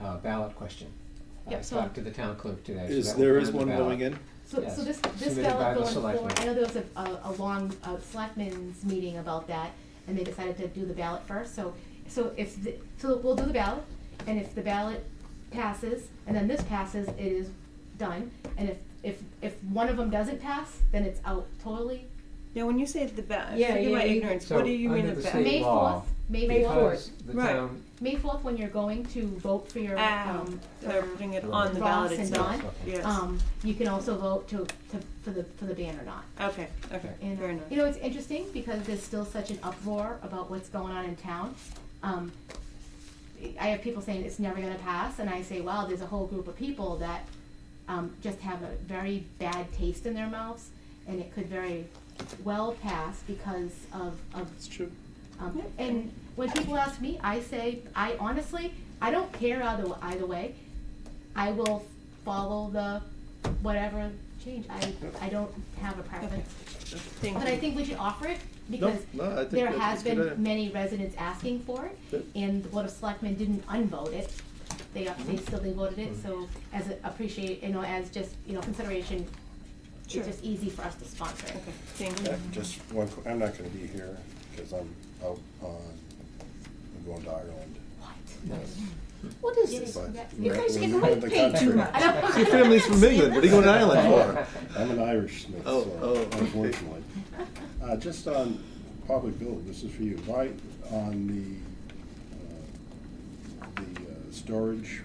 uh, ballot question. I Yep, so- talked to the town clerk today. so Is, that will there be is on the one ballot. going in? So, Yes, so this, this submitted by ballot the going forward, selectmen. I know there was a, a, a long, uh, selectmen's meeting about that, and they decided to do the ballot first, so, so if, the- so we'll do the ballot, and if the ballot passes, and then this passes, it is done, and if, if, if one of them doesn't pass, then it's out totally. Now, when you say the ba- Yeah, forgive yeah, my yeah. ignorance. So, what do you mean under the the ba- state May law, fourth, May fourth, Because the Right. town, May fourth, when you're going to vote for your, Ah, um, they're putting it on the Ross ballot and itself. Don? Yes. um, you can also vote to, to, for the, for the ban or not. okay. Okay. And, uh, Fair enough. You know, it's interesting because there's still such an uproar about what's going on in town. Um, I have people saying it's never gonna pass, and I say, well, there's a whole group of people that, um, just have a very bad taste in their mouths, and it could very well pass because of, of It's true. um, Yeah. and when people ask me, I say, I honestly, I don't care either, either way. I will follow the whatever change. I, I don't have a preference. Thank But you. I think we should offer it because no, I think there that's has a good idea. been many residents asking for it. Yep. And the Board of Selectmen didn't unvote it. They, Mm-hmm. they still they voted it, so as a appreciate, you know, as just, you know, consideration, it's Sure. just easy for us to sponsor it. Okay. Thank you. Uh, Just one, qu- I'm not gonna be here, because I'm out on, I'm going to Ireland. What? yes. What is It this? is- But that- we're- guys we're get in way the paid too country. much. I don't- Your family's from England, what are you going to Ireland I'm an Irishman, Oh, oh, so okay. unfortunately. Uh, just on, probably Bill, this is for you, why, on the, uh, the uh, storage,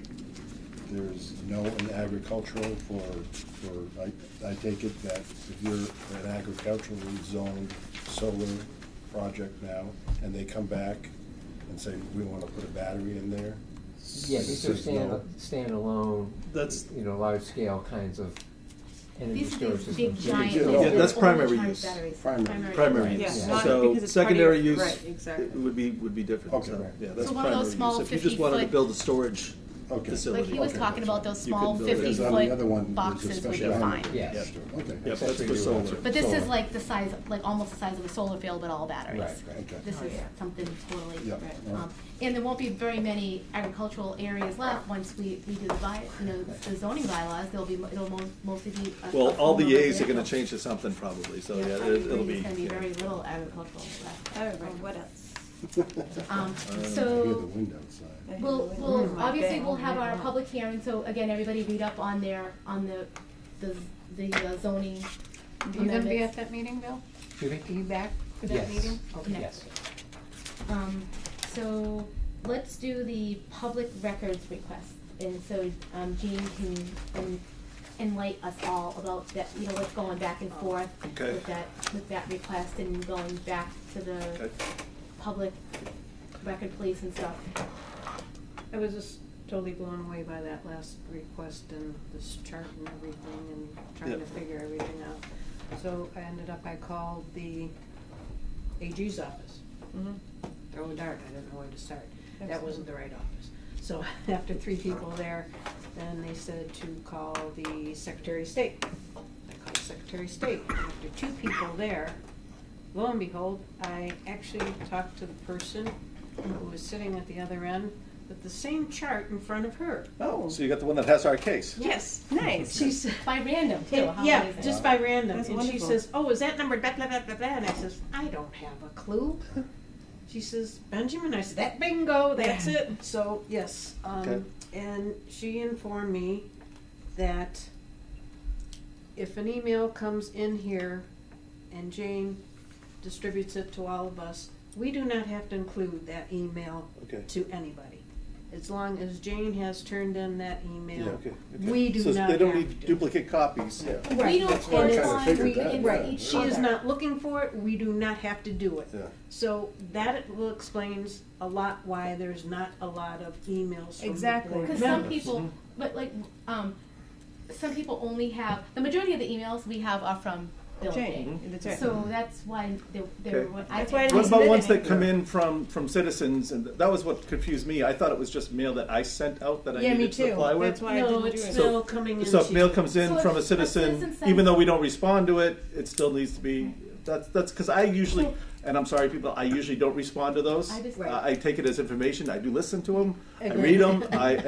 there's no in agricultural for, for, I, I take it that if you're an agriculturally zoned solar project now, and they come back and say, we wanna put a battery in there? Yeah, these are There's no- stand, standalone, That's- you know, large scale kinds of energy These are storage these systems. big Yeah, giant. yeah, these yeah, are that's all primary giant use. batteries. Primary. Primary Yeah, use. use. not- So because it's part of secondary your- use Right, exactly. would be, would be different, Okay. so, yeah, So that's one of primary those use. small If you just wanted to 50-foot build a storage Okay. facility. Like he was Okay. talking about those You small can build it. fifty Because on the other foot one, there's a boxes would special be fine. permit. Yeah. Yes. Okay. Yep, that's for Accessory solar. dwelling. But this is Solar. like the size, like almost the size of a solar field, but all batteries. Right, right. This is Okay. something totally. Yeah, Right. all right. Um, And there won't be very many agricultural areas left once we, we do the by, you know, the zoning bylaws, there'll be, it'll mo- mostly be. a- Well, a all form the of As are gonna residential. change to something probably, so Yeah, yeah, probably it- it'll be. There's gonna be yeah. very little agricultural left. All right. What else? Um, I hear the so, wind outside. I we'll, have no idea. we'll, Mm. obviously, Okay. we'll have our public hearing, so again, everybody read up on their, on the, the, the uh, zoning Are you gonna be amendments. at that meeting, Bill? Excuse me? Are you back for that Yes. meeting? Okay. Yes. Um, so let's do the public records request. And so, um, Jean can en- enlighten us all about that, you know, what's going back and forth Okay. with that, with that request and going back to the Okay. public record police and stuff. I was just totally blown away by that last request and this chart and everything and trying to Yep. figure everything out. So I ended up, I called the AG's office. Mhm. throw a dart, I didn't know where to start. That Excellent. wasn't the right office. So after three people there, then they said to call the Secretary of State. I called Secretary of State. After two people there, lo and behold, I actually talked to the person who was sitting at the other end with the same chart in front of her. Oh, so you got the one that has our case. Yes, nice. She said, By random too, how yeah, amazing. just by random. That's And she wonderful. says, oh, is that number blah, blah, blah, blah, blah? And I says, I don't have a clue. She says, Benjamin, I said, that bingo, that's it. So, yes, Okay. um, and she informed me that if an email comes in here and Jane distributes it to all of us, we do not have to include that email Okay. to anybody. As long as Jane has turned in that Yeah, email, okay, okay. we do So not have to. they don't need duplicate copies, yeah. We don't That's what I kinda correspond, figured we, that, it's yeah. each She is other. not looking for it, we do not have to do it. Yeah. So that will explains a lot why there's not a lot of emails from the Exactly. board Because some members. people, Mm-hmm. but like, um, some people only have, the majority of the emails we have are from Bill and Jane, Jane. that's right. So that's why they, they Okay. were, I. That's why I What didn't about submit ones any. that come in from, from citizens, and that was what confused me, I thought it was just mail that I sent out that I Yeah, me needed to too. apply with. That's why I No, didn't do it. it's So- still coming in. So if to mail you. comes in So from if a a citizen, citizen sends- even though we don't respond to it, it still needs to be, that's, that's, cause I usually, and I'm sorry, people, I usually don't respond to those. I just- I take it as information, I do listen to them, I Agree. read them, I,